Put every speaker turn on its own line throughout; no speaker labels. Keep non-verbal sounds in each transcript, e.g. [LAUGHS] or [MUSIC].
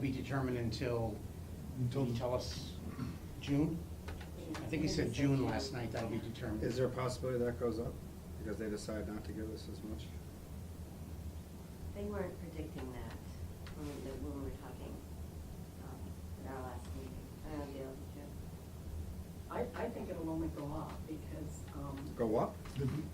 be determined until,
Until-
did you tell us June? I think he said June last night, that'll be determined.
Is there a possibility that goes up because they decide not to give us as much?
They weren't predicting that when we, when we were talking, um, at our last meeting. I don't know, Gail, did you?
I, I think it'll only go up because, um.
Go up?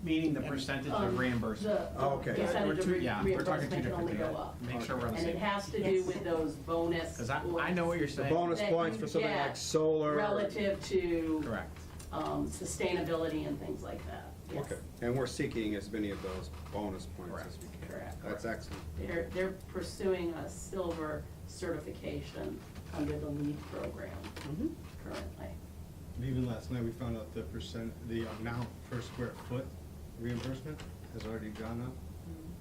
Meaning the percentage
um,
of reimbursement.
the-
Oh, okay.
the Percentage of
We're two-
re-
yeah, we're talking two
reimbursement can
different
only
things.
go up.
Make sure we're on the
And it
same.
has to do
Yes.
with those bonus.
Because I, I know what you're
The
saying.
bonus
that
points
you
for something
get
like solar. or-
Relative to.
Correct.
Um, sustainability and things like that, yes.
Okay, and we're seeking as many of those bonus points as we can.
Correct.
That's excellent.
They're, they're pursuing a silver certification under the LEED program
Mm-hmm.
Mhm.
currently.
And Even last night, we found out the percent, the amount per square foot reimbursement has already gone up.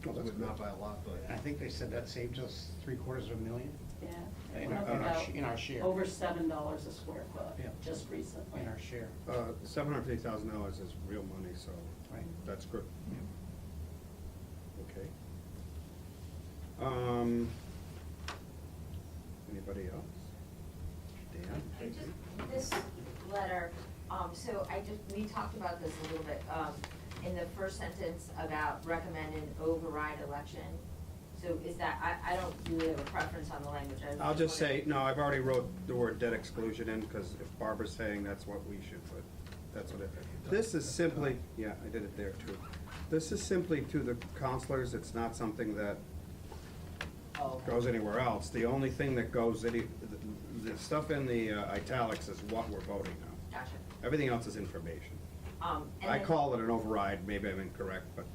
Oh, that's
But Not
good.
by a lot, but.
I think they said that saved us three quarters of a million
Yeah. it
in
went up
our- in our,
about
sh- in our share,
Over seven dollars a square foot,
Yeah.
just recently.
in our share.
Uh, seven hundred fifty thousand dollars is real money, so
Right.
that's good.
Yeah.
Okay. Um, anybody else? Dan?
I just, this letter, um, so I just, we talked about this a little bit, um, in the first sentence about recommend an override election. So is that, I, I don't really have a preference on the language. I was
I'll just say,
wondering-
no, I've already wrote the word debt exclusion in, because if Barbara's saying that's what we should put, that's what it, this is simply, yeah, I did it there too. This is simply to the counselors, it's not something that
Oh.
goes anywhere else. The only thing that goes, any, the, the stuff in the uh, italics is what we're voting on.
Gotcha.
Everything else is information.
Um, and
I
then-
call it an override, maybe I'm incorrect, but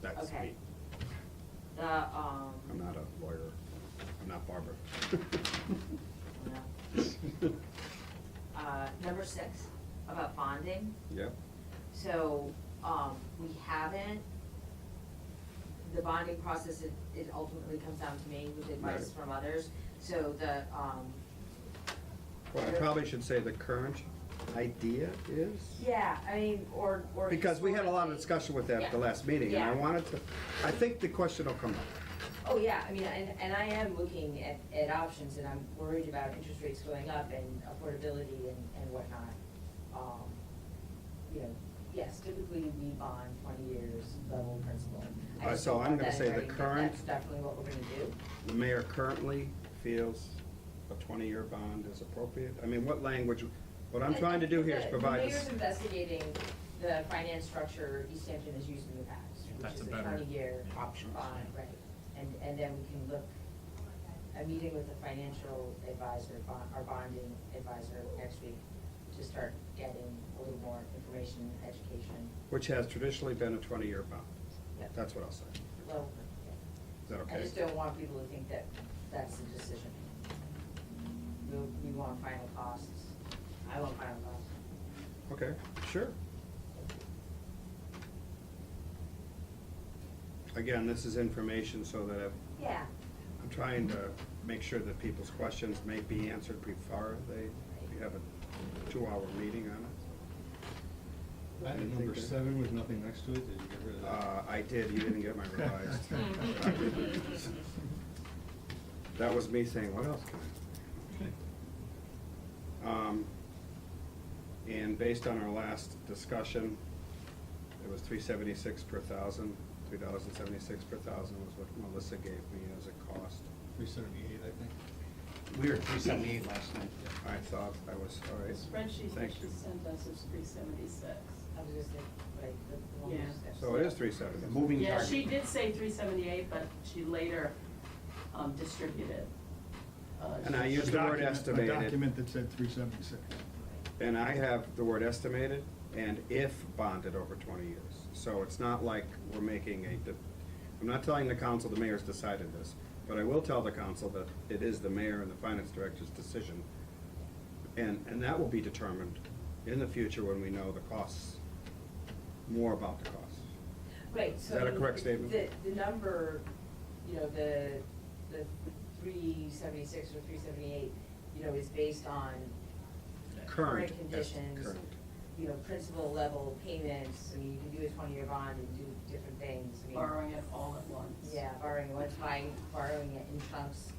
that's
Okay.
me.
The, um,
I'm not a lawyer, I'm not Barbara. [LAUGHS]
no.
[LAUGHS]
uh, number six, about bonding.
Yep,
So, um, we haven't, the bonding process, it, it ultimately comes down to me with advice
Right.
from others. So the, um,
Well, I probably should say the current idea is?
yeah, I mean, or, or.
Because we had a lot of
historically-
discussion with that at the last meeting, and I
Yeah.
wanted to, I think the question will come up.
Oh, yeah, I mean, and, and I am looking at, at options, and I'm worried about interest rates going up and affordability and, and whatnot. Um, you know, yes, typically we bond twenty years, level principal. I
Uh,
just
so
don't
I'm
want
gonna
that
say the
writing, but
current-
That's definitely what we're gonna do.
The mayor currently feels a twenty-year bond is appropriate. I mean, what language, what I'm
I
trying to
think
do here is
that
provide,
The mayor's
us-
investigating the finance structure East Hampton has used in the
Yeah,
past,
that's
which is
a
a
better
twenty-year
option.
bond, right? And, and then we can look, a meeting with the financial advisor, bond, our bonding advisor next week to start getting a little more information, education,
which has traditionally been a twenty-year bond.
Yep.
That's what I'll say. Is
level.
that
I
okay?
just don't want people to think that that's the decision. We, we want final costs. I want final costs.
Okay, sure. Again, this is information so that if
Yeah.
I'm trying to make sure that people's questions may be answered before they, we have a two-hour meeting on it.
Item number seven with nothing next to it, did you get rid of that?
Uh, I did, you didn't get my revised. That was me saying, what else can I? Um, and based on our last discussion, it was three seventy-six per thousand. Three dollars and seventy-six per thousand was what Melissa gave me as a cost.
Three seventy-eight, I think.
We were at three seventy-eight last night.
I thought I was, all
The
right.
spreadsheet that
Thank
she
you.
sent us is three seventy-six.
I was just thinking, like, the the one
Yeah.
that's-
So it is three seventy.
The moving
Yeah,
target.
she did say three seventy-eight, but she later, um, distributed. uh,
And I
she-
used the word
Document-
estimated.
A document that said three seventy-six.
And I have the word estimated and if bonded over twenty years. So it's not like we're making a, de- I'm not telling the council the mayor's decided this, but I will tell the council that it is the mayor and the finance director's decision. And, and that will be determined in the future when we know the costs, more about the costs.
Right,
Is
so.
that a
I mean,
correct statement?
The, the number, you know, the, the three seventy-six or three seventy-eight, you know, is based on current
est-
conditions.
current.
You know, principal level payments, I mean, you can do a twenty-year bond and do different things, I mean.
Borrowing it all at once.
Yeah, borrowing, what's buying, borrowing it in chunks,